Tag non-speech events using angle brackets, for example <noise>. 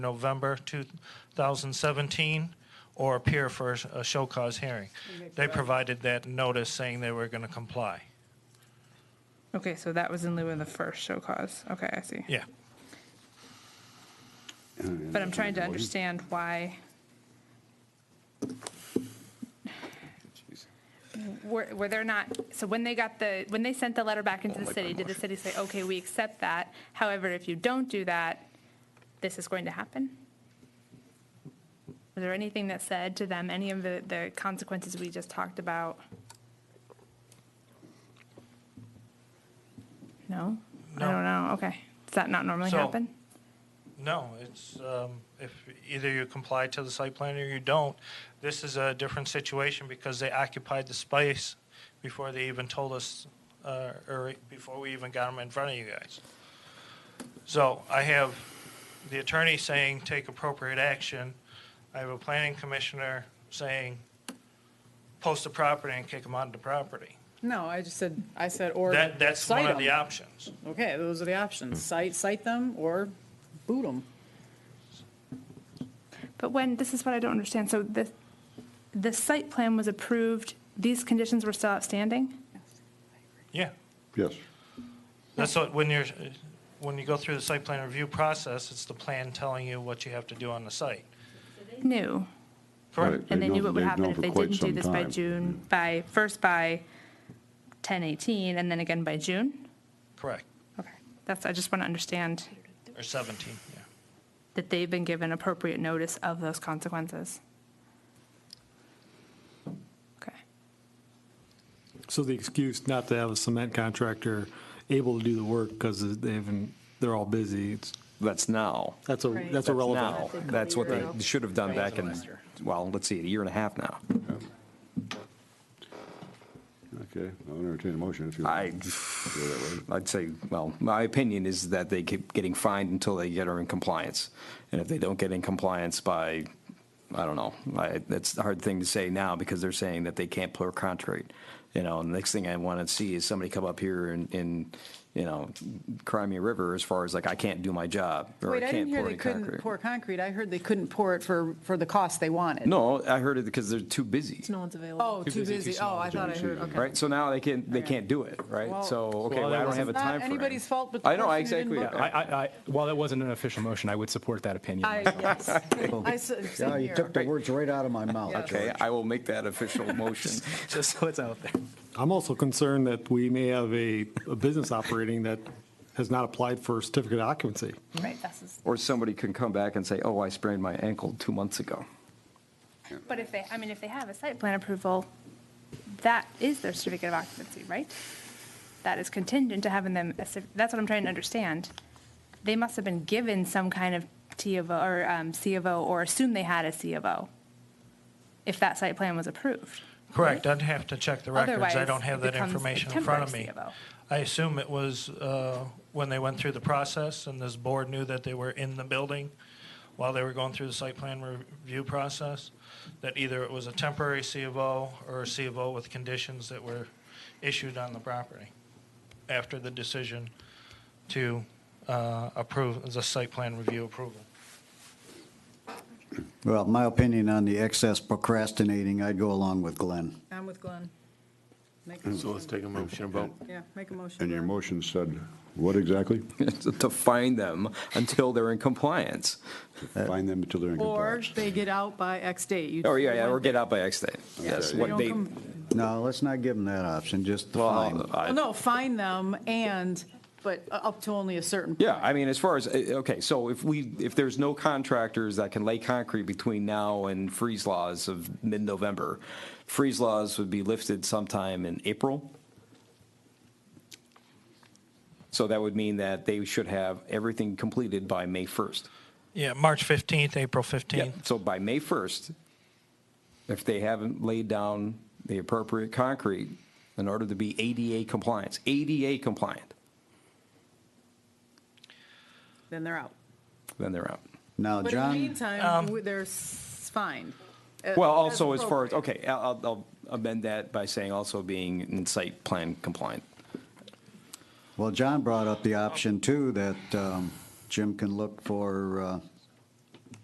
November 2017 or appear for a show cause hearing. They provided that notice saying they were going to comply. Okay, so that was in lieu of the first show cause. Okay, I see. Yeah. But I'm trying to understand why. Were, were there not, so when they got the, when they sent the letter back Oh into the city, did the city say, okay, we accept that? However, if you don't do that, this is going to happen? Was there anything that said to them, any of the, the consequences we just talked about? No? I No. don't know, okay. Does that not normally So- happen? No, it's, um, if either you comply to the site plan or you don't, this is a different situation because they occupied the space before they even told us, uh, or before we even got them in front of you guys. So I have the attorney saying, take appropriate action. I have a planning commissioner saying, post the property and kick them out of the property. No, I just said, I said, or That, that's one cite of the Hmm. them. options. Okay, those are the options. Cite, cite them or boot them. But when, this is what I don't understand, so the, the site plan was approved, these conditions were still outstanding? Yeah. Yes. That's what, when you're, when you go through the site plan review process, it's the plan telling you what you have to do on the site. New, Correct. and they knew what would They've happen known if for they quite didn't do some this by time. Mm. June, by, first by ten eighteen, and then again by June? Correct. Okay, that's, I just want to understand Or 17, yeah. that they've been given appropriate notice of those consequences. Okay, So the excuse not to have a cement contractor able to do the work because they haven't, they're all busy, it's, That's now. that's a, Right. that's That's irrelevant. Now. That's what they should have done back in, Last year. well, let's see, a year and a half now. Okay, I'll entertain a motion if you I, want. to go that way. I'd say, well, my opinion is that they keep getting fined until they get her in compliance. And if they don't get in compliance by, I don't know, I, that's a hard thing to say now because they're saying that they can't put her contract. You know, and the next thing I want to see is somebody come up here and, and, you know, cry me a river as far as like, I can't do my job. or Wait, I can't didn't hear pour they any couldn't concrete." pour concrete. I heard they couldn't pour it for, for the cost they wanted. No, I heard it because they're too busy. No one's available. Oh, too busy. Oh, I thought I heard, okay. Right, so now they can't, they can't do it, right? Well- So, okay, Well, well, I don't it's have a not time frame. anybody's fault but the I know, person who exactly. didn't book I, I, I, while that wasn't an official motion, I would support that opinion. I, myself. yes. <laughs> I s- Yeah, same you here. took the words right out of my mouth. Yeah. Okay, I will make <laughs> that official motion. <laughs> Just so it's out there. I'm also concerned that we may have a, a business operating that has not applied for a certificate of occupancy. right, that's, just- Or somebody can come back and say, oh, I sprained my ankle two months ago. <laughs> but if they, I mean, if they have a site plan approval, that is their certificate of occupancy, right? That is contingent to having them, a cer- that's what I'm trying to understand. They must have been given some kind of T of O, or um, C of O, or assume they had a C of O, if that site plan was approved. Correct, I'd have to check the records, I Otherwise, don't have it that becomes a information in front of temporary me. CFO. I assume it was uh, when they went through the process and this board knew that they were in the building while they were going through the site plan review process, that either it was a temporary C of O or a C of O with conditions that were issued on the property after the decision to uh, approve, the site plan review approval. Well, my opinion on the excess procrastinating, I'd go along with Glenn. I'm with Glenn. Make a So let's motion. take a motion and vote. Yeah, make a motion. And your Glenn. motion said what exactly? To fine them until they're in compliance. Find them until they're in Or compliance. they get out by X date. You- Or, Oh, yeah, yeah, or get out by X date. Yes, They what don't date. come- No, let's not give them that option, just the Well, uh, fine. I'll- I- Well, no, find them and, but up to only a certain. Yeah, I mean, as far as, eh, okay, so if we, if there's no contractors that can lay concrete between now and freeze laws of mid-November, freeze laws would be lifted sometime in April. So that would mean that they should have everything completed by May 1st. Yeah, March 15th, April Yeah, 15th. so by May 1st, if they haven't laid down the appropriate concrete in order to be ADA compliance, ADA compliant, Then they're out. then they're out. But Now, in the John, meantime, we- they're s- fined. uh, Well, also as far as, appropriate. okay, I'll, I'll amend that by saying also being in site plan compliant. well, John brought up the option too, that um, Jim can look for uh,